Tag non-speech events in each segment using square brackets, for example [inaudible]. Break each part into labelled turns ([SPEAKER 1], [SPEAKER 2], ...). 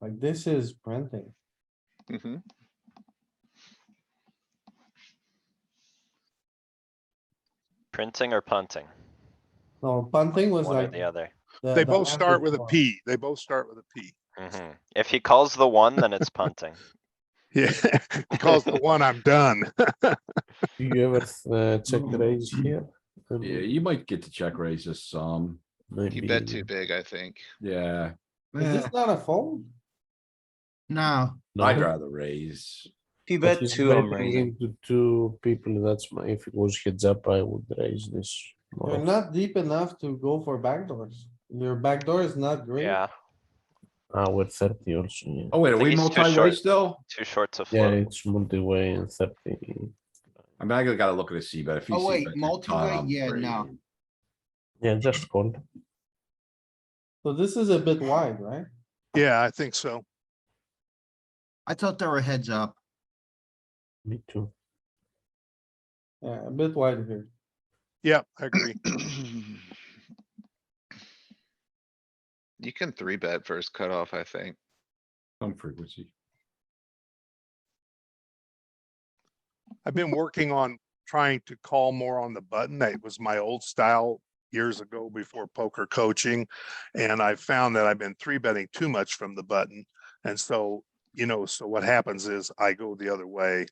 [SPEAKER 1] Like this is printing.
[SPEAKER 2] Mm-hmm.
[SPEAKER 3] Printing or punting?
[SPEAKER 1] No, punting was
[SPEAKER 3] One or
[SPEAKER 1] like.
[SPEAKER 3] the other.
[SPEAKER 1] Uh, the-
[SPEAKER 2] They
[SPEAKER 1] the
[SPEAKER 2] both
[SPEAKER 1] last
[SPEAKER 2] start with a
[SPEAKER 1] response.
[SPEAKER 2] P. They both start with a P.
[SPEAKER 3] Mhm. If he calls the one, then it's punting.
[SPEAKER 2] Yeah, [laughs] because the one I'm done.
[SPEAKER 4] Do you ever uh, check the raise here? Um,
[SPEAKER 5] Yeah, you might get to check raises some.
[SPEAKER 6] You
[SPEAKER 4] maybe-
[SPEAKER 6] bet too big, I
[SPEAKER 7] [clears throat]
[SPEAKER 6] think.
[SPEAKER 5] Yeah,
[SPEAKER 1] Is this not a fold?
[SPEAKER 7] No,
[SPEAKER 4] No,
[SPEAKER 5] I'd rather raise.
[SPEAKER 8] P
[SPEAKER 4] but
[SPEAKER 8] bet
[SPEAKER 4] he's
[SPEAKER 8] two, I'm
[SPEAKER 4] betting
[SPEAKER 8] raising.
[SPEAKER 4] into Two people, that's my, if it was heads up, I would raise this. more
[SPEAKER 1] You're
[SPEAKER 4] often.
[SPEAKER 1] not deep enough to go for backdoors. Your backdoor is not great.
[SPEAKER 3] Yeah,
[SPEAKER 4] Ah, we're thirty also, yeah.
[SPEAKER 5] Oh, wait, are
[SPEAKER 3] think
[SPEAKER 5] we
[SPEAKER 3] he's too
[SPEAKER 5] multi-way
[SPEAKER 3] short.
[SPEAKER 5] still?
[SPEAKER 3] too short to
[SPEAKER 4] Yeah,
[SPEAKER 3] float.
[SPEAKER 4] it's multi-way and thirty.
[SPEAKER 5] I mean, I gotta- gotta look at a C bet. If you
[SPEAKER 7] Oh,
[SPEAKER 5] see
[SPEAKER 7] wait,
[SPEAKER 5] bet,
[SPEAKER 7] multi-way?
[SPEAKER 5] I'm
[SPEAKER 7] Yeah, no.
[SPEAKER 5] raising.
[SPEAKER 4] Yeah, just call.
[SPEAKER 1] So this is a bit wide, right?
[SPEAKER 2] Yeah, I think so.
[SPEAKER 7] I thought they were heads up.
[SPEAKER 4] Me too.
[SPEAKER 1] Yeah, a bit wide here.
[SPEAKER 2] Yeah, I agree.
[SPEAKER 6] You can three bet first cutoff, I think.
[SPEAKER 5] Some frequency.
[SPEAKER 2] I've been working on trying to call more on the button. That was my old style years ago before poker coaching. And I found that I've been three betting too much from the button. And so, you know, so what happens is I go the other way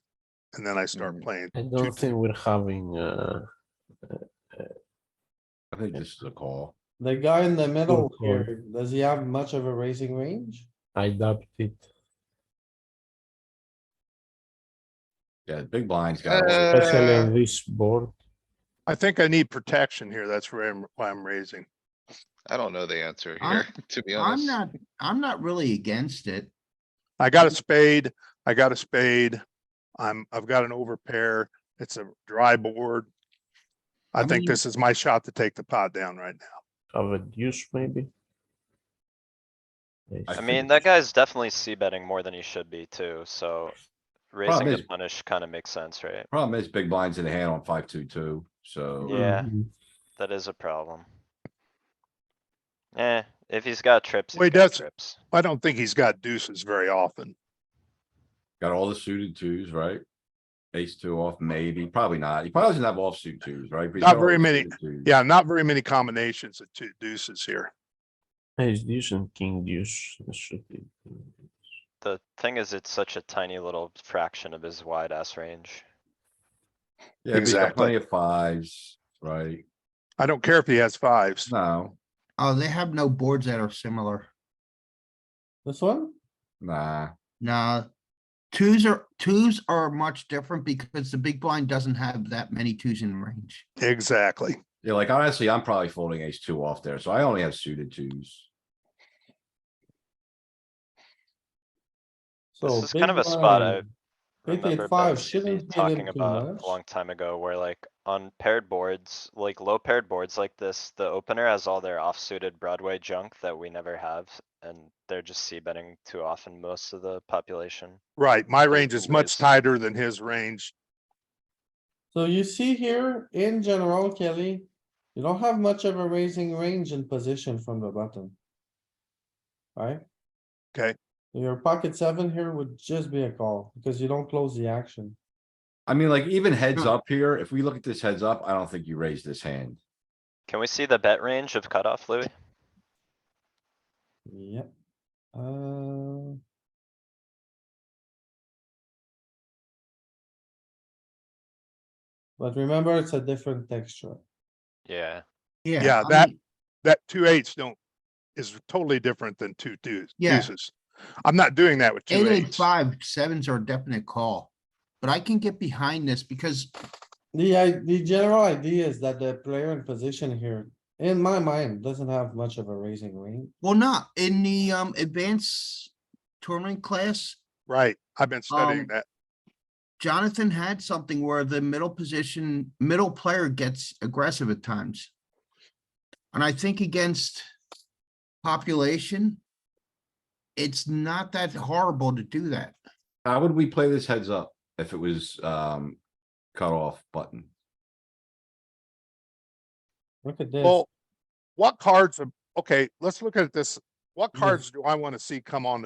[SPEAKER 2] and then I start
[SPEAKER 6] Mm.
[SPEAKER 2] playing.
[SPEAKER 4] I don't think we're having, uh,
[SPEAKER 5] I think this is a call.
[SPEAKER 1] The guy in the middle
[SPEAKER 4] call.
[SPEAKER 1] here, does he have much of a racing range?
[SPEAKER 4] I doubt it.
[SPEAKER 5] Yeah, the big blind's got.
[SPEAKER 6] Uh,
[SPEAKER 4] Especially on this board,
[SPEAKER 2] I think I need protection here. That's where I'm, why I'm raising.
[SPEAKER 6] I don't know the answer
[SPEAKER 7] I'm-
[SPEAKER 6] here, [laughs] to be
[SPEAKER 7] I'm
[SPEAKER 6] honest.
[SPEAKER 7] not, I'm not really against it.
[SPEAKER 2] I got a spade, I got a spade. I'm, I've got an overpair. It's a dry board. I
[SPEAKER 7] I
[SPEAKER 2] think
[SPEAKER 7] mean-
[SPEAKER 2] this is my shot to take the pot down right now.
[SPEAKER 4] have a deuce maybe.
[SPEAKER 5] I
[SPEAKER 3] I
[SPEAKER 5] think
[SPEAKER 3] mean,
[SPEAKER 5] it
[SPEAKER 3] that
[SPEAKER 5] is.
[SPEAKER 3] guy's definitely c betting more than he should be too, so raising
[SPEAKER 5] Problem
[SPEAKER 3] to
[SPEAKER 5] is-
[SPEAKER 3] punish kinda makes sense, right?
[SPEAKER 5] Problem is, big blind's in the hand on five, two, two, so.
[SPEAKER 3] Yeah, that is a problem. Eh, if he's got trips,
[SPEAKER 2] Well,
[SPEAKER 3] he's
[SPEAKER 2] he
[SPEAKER 3] got
[SPEAKER 2] does-
[SPEAKER 3] trips.
[SPEAKER 2] I don't think he's got deuces very often.
[SPEAKER 5] Got all the suited twos, right? Ace two off, maybe, probably not. He probably doesn't have offsuit twos, right? But he's
[SPEAKER 2] Not
[SPEAKER 5] got all
[SPEAKER 2] very
[SPEAKER 5] the
[SPEAKER 2] many.
[SPEAKER 5] suited twos.
[SPEAKER 2] Yeah, not very many combinations of two deuces here.
[SPEAKER 4] Ace deuce and king deuce this should be.
[SPEAKER 3] The thing is, it's such a tiny little fraction of his wide ass range.
[SPEAKER 5] Yeah, but he's got
[SPEAKER 2] Exactly.
[SPEAKER 5] plenty of fives, right?
[SPEAKER 2] I don't care if he has fives.
[SPEAKER 5] No,
[SPEAKER 7] Oh, they have no boards that are similar.
[SPEAKER 1] This one?
[SPEAKER 5] nah.
[SPEAKER 7] Nah. Twos are, twos are much different because the big blind doesn't have that many twos in range.
[SPEAKER 2] Exactly.
[SPEAKER 5] Yeah, like honestly, I'm probably folding ace two off there, so I only have suited twos.
[SPEAKER 1] So
[SPEAKER 3] This is kind
[SPEAKER 1] big
[SPEAKER 3] of a spot I
[SPEAKER 1] blind. Big
[SPEAKER 3] remember
[SPEAKER 1] eight five
[SPEAKER 3] Bevy
[SPEAKER 1] shouldn't be in
[SPEAKER 3] talking
[SPEAKER 1] too
[SPEAKER 3] about
[SPEAKER 1] much.
[SPEAKER 3] a long time ago where like on paired boards, like low paired boards like this, the opener has all their offsuited Broadway junk that we never have. And they're just c betting too often most of the population.
[SPEAKER 2] Right. My range
[SPEAKER 3] two
[SPEAKER 2] is much
[SPEAKER 3] ways.
[SPEAKER 2] tighter than his range.
[SPEAKER 1] So you see here, in general, Kelly, you don't have much of a raising range in position from the button. Right?
[SPEAKER 2] Okay.
[SPEAKER 1] Your pocket seven here would just be a call because you don't close the action.
[SPEAKER 5] I mean, like even heads
[SPEAKER 7] Huh.
[SPEAKER 5] up here, if we look at this heads up, I don't think you raise this hand.
[SPEAKER 3] Can we see the bet range of cutoff, Louis?
[SPEAKER 1] Yep. Uh, But remember, it's a different texture.
[SPEAKER 3] Yeah.
[SPEAKER 2] Yeah,
[SPEAKER 7] I
[SPEAKER 2] that-
[SPEAKER 7] mean,
[SPEAKER 2] That two eights don't, is totally different than two deuce-
[SPEAKER 7] Yeah.
[SPEAKER 2] deuces. I'm not doing that with two
[SPEAKER 7] Eight, eight,
[SPEAKER 2] eights.
[SPEAKER 7] five, sevens are a definite call. But I can get behind this because
[SPEAKER 1] The, i- the general idea is that the player in position here, in my mind, doesn't have much of a raising range.
[SPEAKER 7] Well, not in the um advanced tournament class,
[SPEAKER 2] Right. I've been studying
[SPEAKER 7] Um,
[SPEAKER 2] that.
[SPEAKER 7] Jonathan had something where the middle position, middle player gets aggressive at times. And I think against population, it's not that horrible to do that.
[SPEAKER 5] How would we play this heads up if it was um cut off button?
[SPEAKER 1] Look at this.
[SPEAKER 2] Well, what cards, are- okay, let's look at this. What
[SPEAKER 1] Yeah.
[SPEAKER 2] cards do I want to see come on